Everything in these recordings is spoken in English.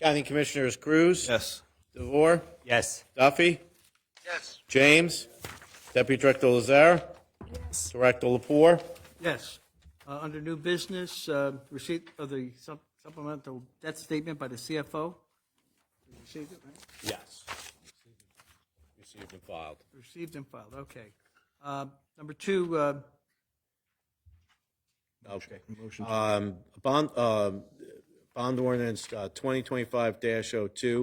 County Commissioners Cruz. Yes. DeVore. Yes. Duffy. Yes. James. Deputy Director Lazar. Director Lapore. Yes. Uh, Under new business, uh, receipt of the sup- supplemental debt statement by the CFO. You Received it, right? Yes. Received and filed. Received and filed, okay. Uh, Number two, uh, Okay. Um, Bond, um, bond ordinance uh, 2025-02,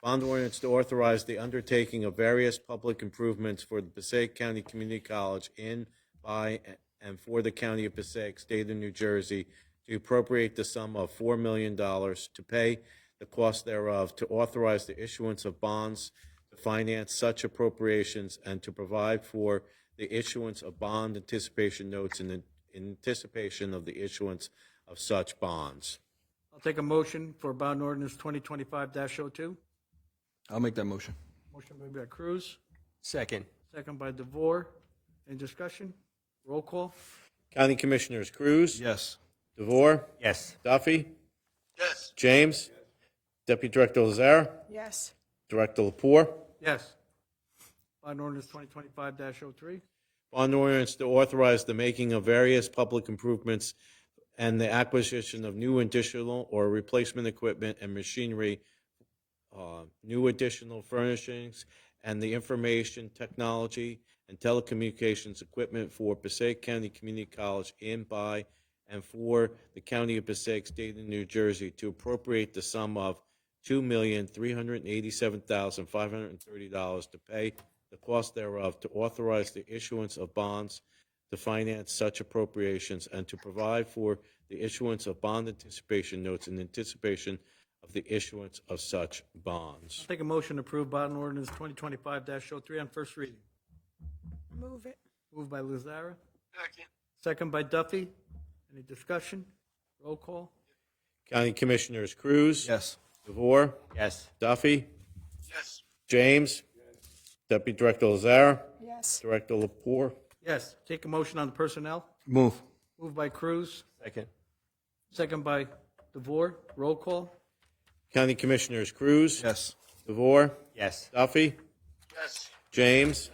bond ordinance to authorize the undertaking of various public improvements for the Passaic County Community College in, by, and for the county of Passaic, state of New Jersey, to appropriate the sum of $4 million to pay the cost thereof, to authorize the issuance of bonds to finance such appropriations, and to provide for the issuance of bond anticipation notes in in anticipation of the issuance of such bonds. I'll take a motion for bond ordinance 2025-02. I'll make that motion. Motion made by Cruz, Second. second by DeVore. Any discussion? Roll call? County Commissioners Cruz. Yes. DeVore. Yes. Duffy. Yes. James. Deputy Director Lazar. yes, Director Lapore. Yes. Bond ordinance 2025-03. Bond ordinance to authorize the making of various public improvements and the acquisition of new additional or replacement equipment and machinery, uh, new additional furnishings, and the information technology and telecommunications equipment for Passaic County Community College in, by, and for the County of Passaic, State of New Jersey to appropriate the sum of two million, three hundred and eighty-seven thousand, five hundred and thirty dollars to pay the cost thereof, to authorize the issuance of bonds to finance such appropriations, and to provide for the issuance of bond anticipation notes in anticipation of the issuance of such bonds. I'll take a motion to approve bond ordinance 2025-03 on first reading. move it, Moved by Lazara. Second. Second by Duffy. Any discussion? Roll call? County Commissioners Cruz. Yes. DeVore. Yes. Duffy. Yes. James. Deputy Director Lazar. yes, Director Lapore. Yes. Take a motion on the personnel. Move. Moved by Cruz, Second. second by DeVore. Roll call? County Commissioners Cruz. Yes. DeVore. Yes. Duffy. Yes. James.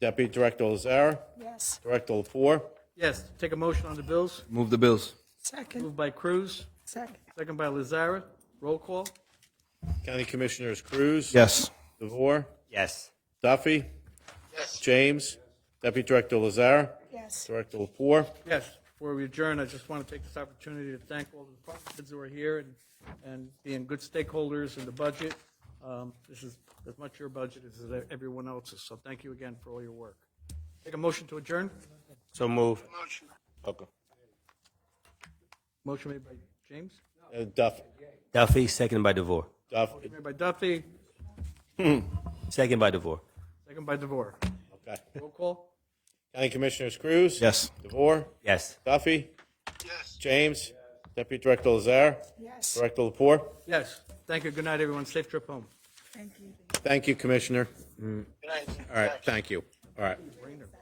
Deputy Director Lazar. yes, Director Lapore. Yes. Take a motion on the bills. Move the bills. second, Moved by Cruz, second, second by Lazara. Roll call? County Commissioners Cruz. Yes. DeVore. Yes. Duffy. Yes. James. Deputy Director Lazar. yes, Director Lapore. Yes. Before we adjourn, I just want to take this opportunity to thank all the department heads who are here and, and being good stakeholders in the budget. Um, This is as much your budget as everyone else's, so thank you again for all your work. Take a motion to adjourn? So move. Motion made by James, Uh, Duff, Duffy, second by DeVore. Duff, made by Duffy, Second by DeVore. second by DeVore. okay. Roll call? County Commissioners Cruz. Yes. DeVore. Yes. Duffy. Yes. James. Deputy Director Lazar. yes, Director Lapore. Yes. Thank you. Good night, everyone. Safe trip home. thank you. Thank you, Commissioner. All right, thank you. All right. Rainer.